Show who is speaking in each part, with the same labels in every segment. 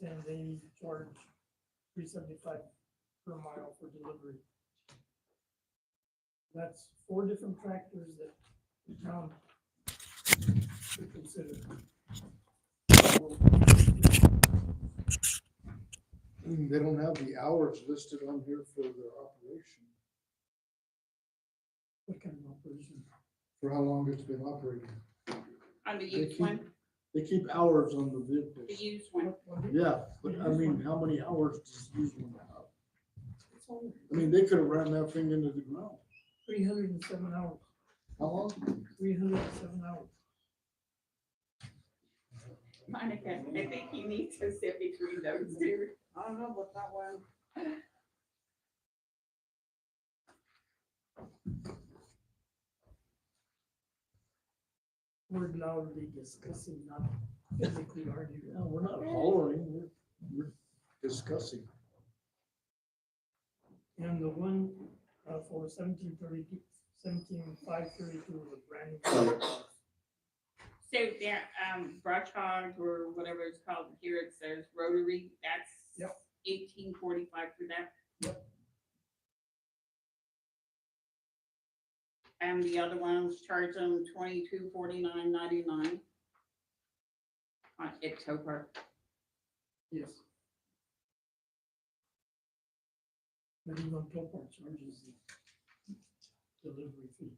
Speaker 1: saying they charge three seventy-five per mile for delivery. That's four different tractors that the town should consider.
Speaker 2: Mm, They don't have the hours listed on here for their operation,
Speaker 1: What kind of operation?
Speaker 2: for how long it's been operating.
Speaker 3: On the
Speaker 2: They
Speaker 3: used
Speaker 2: keep-
Speaker 3: one,
Speaker 2: They keep hours on the
Speaker 3: the
Speaker 2: vehicles.
Speaker 3: used one,
Speaker 2: Yeah, but I mean, how many hours does these one have? I mean, they could have ran that thing into the ground.
Speaker 1: Three hundred and seven hours,
Speaker 2: How long?
Speaker 1: three hundred and seven hours.
Speaker 3: Monica, I think you need to sit between those two.
Speaker 4: I don't know about that one.
Speaker 1: We're loudly discussing, not physically arguing.
Speaker 2: Yeah, we're not hollering, we're, we're discussing.
Speaker 1: And the one uh, for seventeen thirty-two, seventeen five thirty-two was a brand new. car.
Speaker 3: So that, um, brush hog or whatever it's called here, it says rotary, that's
Speaker 1: Yep.
Speaker 3: eighteen forty-five for that. And the other ones charge them twenty-two forty-nine ninety-nine. Uh, On October,
Speaker 1: Yes. But even Topar charges the delivery fee.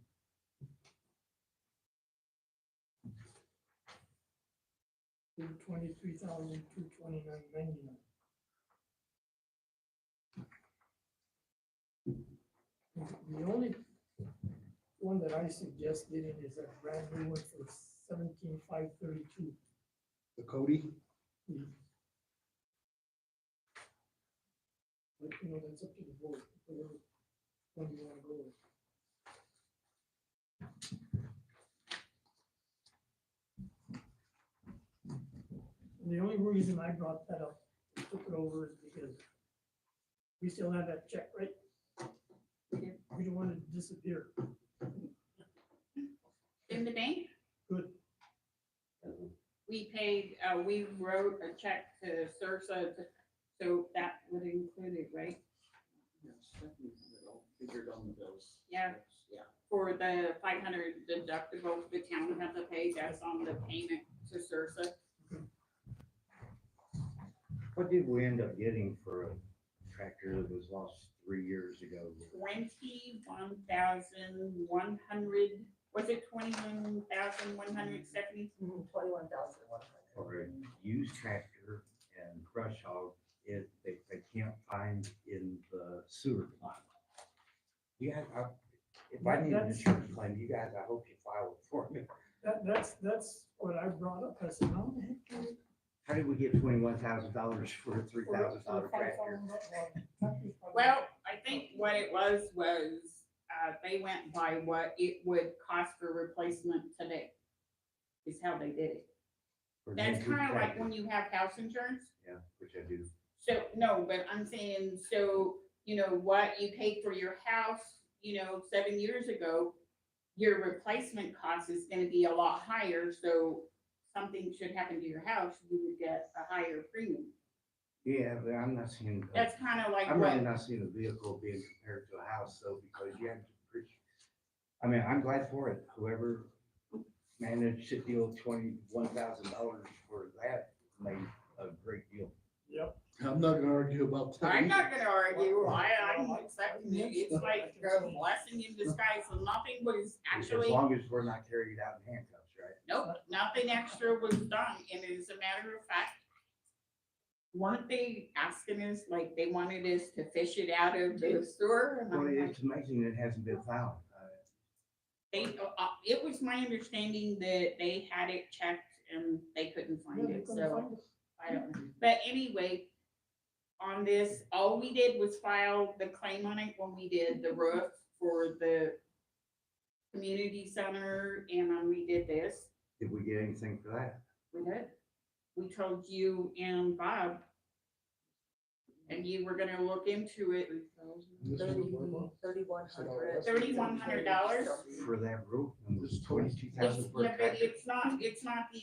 Speaker 1: Twenty-three thousand, two twenty-nine, ninety-nine. The only one that I suggest getting is that brand new one for seventeen, five thirty-two.
Speaker 2: The Cody?
Speaker 1: But, you know, that's up to the board, whatever one you wanna go with. And The only reason I brought that up, took it over is because we still have that check, right? We don't want it to disappear.
Speaker 3: in the bank?
Speaker 1: Good,
Speaker 3: We paid, uh, we wrote a check to Sursa, so that would include it, right?
Speaker 2: Figured on the bills.
Speaker 3: Yeah. For the five hundred deductible, the town had to pay, that's on the payment to Sursa.
Speaker 5: What did we end up getting for a tractor that was lost three years ago?
Speaker 3: Twenty-one thousand one hundred, was it twenty-one thousand one hundred seventy?
Speaker 4: Twenty-one thousand one
Speaker 5: Or a used tractor and brush hog, it, they, they can't find in the sewer plant? You guys, I, if I need an
Speaker 1: That's-
Speaker 5: insurance claim, you guys, I hope you file it for me.
Speaker 1: that, that's, that's what I brought up, I said, how the heck can we
Speaker 5: How did we get twenty-one thousand dollars for a three thousand dollar tractor?
Speaker 1: tractor.
Speaker 3: Well, I think what it was, was, uh, they went by what it would cost for replacement today. Is how they did it.
Speaker 5: for an
Speaker 3: That's
Speaker 5: antique
Speaker 3: kind of like
Speaker 5: tractor?
Speaker 3: when you have house insurance.
Speaker 5: Yeah, which I do.
Speaker 3: So, no, but I'm saying, so, you know, what you paid for your house, you know, seven years ago, your replacement cost is gonna be a lot higher, so something should happen to your house, you would get a higher premium.
Speaker 5: Yeah, but I'm not seeing. a
Speaker 3: That's kind of like
Speaker 5: I'm really
Speaker 3: what,
Speaker 5: not seeing a vehicle being compared to a house though, because you have to appreciate. I mean, I'm glad for it, whoever managed to deal twenty-one thousand dollars for that made a great deal.
Speaker 1: Yep.
Speaker 2: I'm not gonna argue about that.
Speaker 3: I'm
Speaker 2: either.
Speaker 3: not gonna argue, I, I'm accepting it, it's like a blessing in disguise, and nothing was
Speaker 5: As
Speaker 3: actually,
Speaker 5: long as we're not carried out in handcuffs, right?
Speaker 3: nope, nothing extra was done, and as a matter of fact, weren't they asking us, like, they wanted us to fish it out of the sewer? And
Speaker 5: Well,
Speaker 3: I'm like,
Speaker 5: it's amazing it hasn't been found. Uh,
Speaker 3: They, uh, uh, it was my understanding that they had it checked and they couldn't find it, so I don't know. But anyway, on this, all we did was file the claim on it when we did the roof for the community center, and then we did this.
Speaker 5: Did we get anything for that?
Speaker 3: We did. We told you and Bob. And you were gonna look into it.
Speaker 2: This is
Speaker 4: hundred.
Speaker 2: what-
Speaker 4: Thirty-one hundred.
Speaker 3: $3,100?
Speaker 5: For that roof, it was
Speaker 2: It's
Speaker 5: twenty-two
Speaker 3: It's,
Speaker 5: thousand for a
Speaker 3: yeah, but
Speaker 5: tractor.
Speaker 3: it's not, it's not the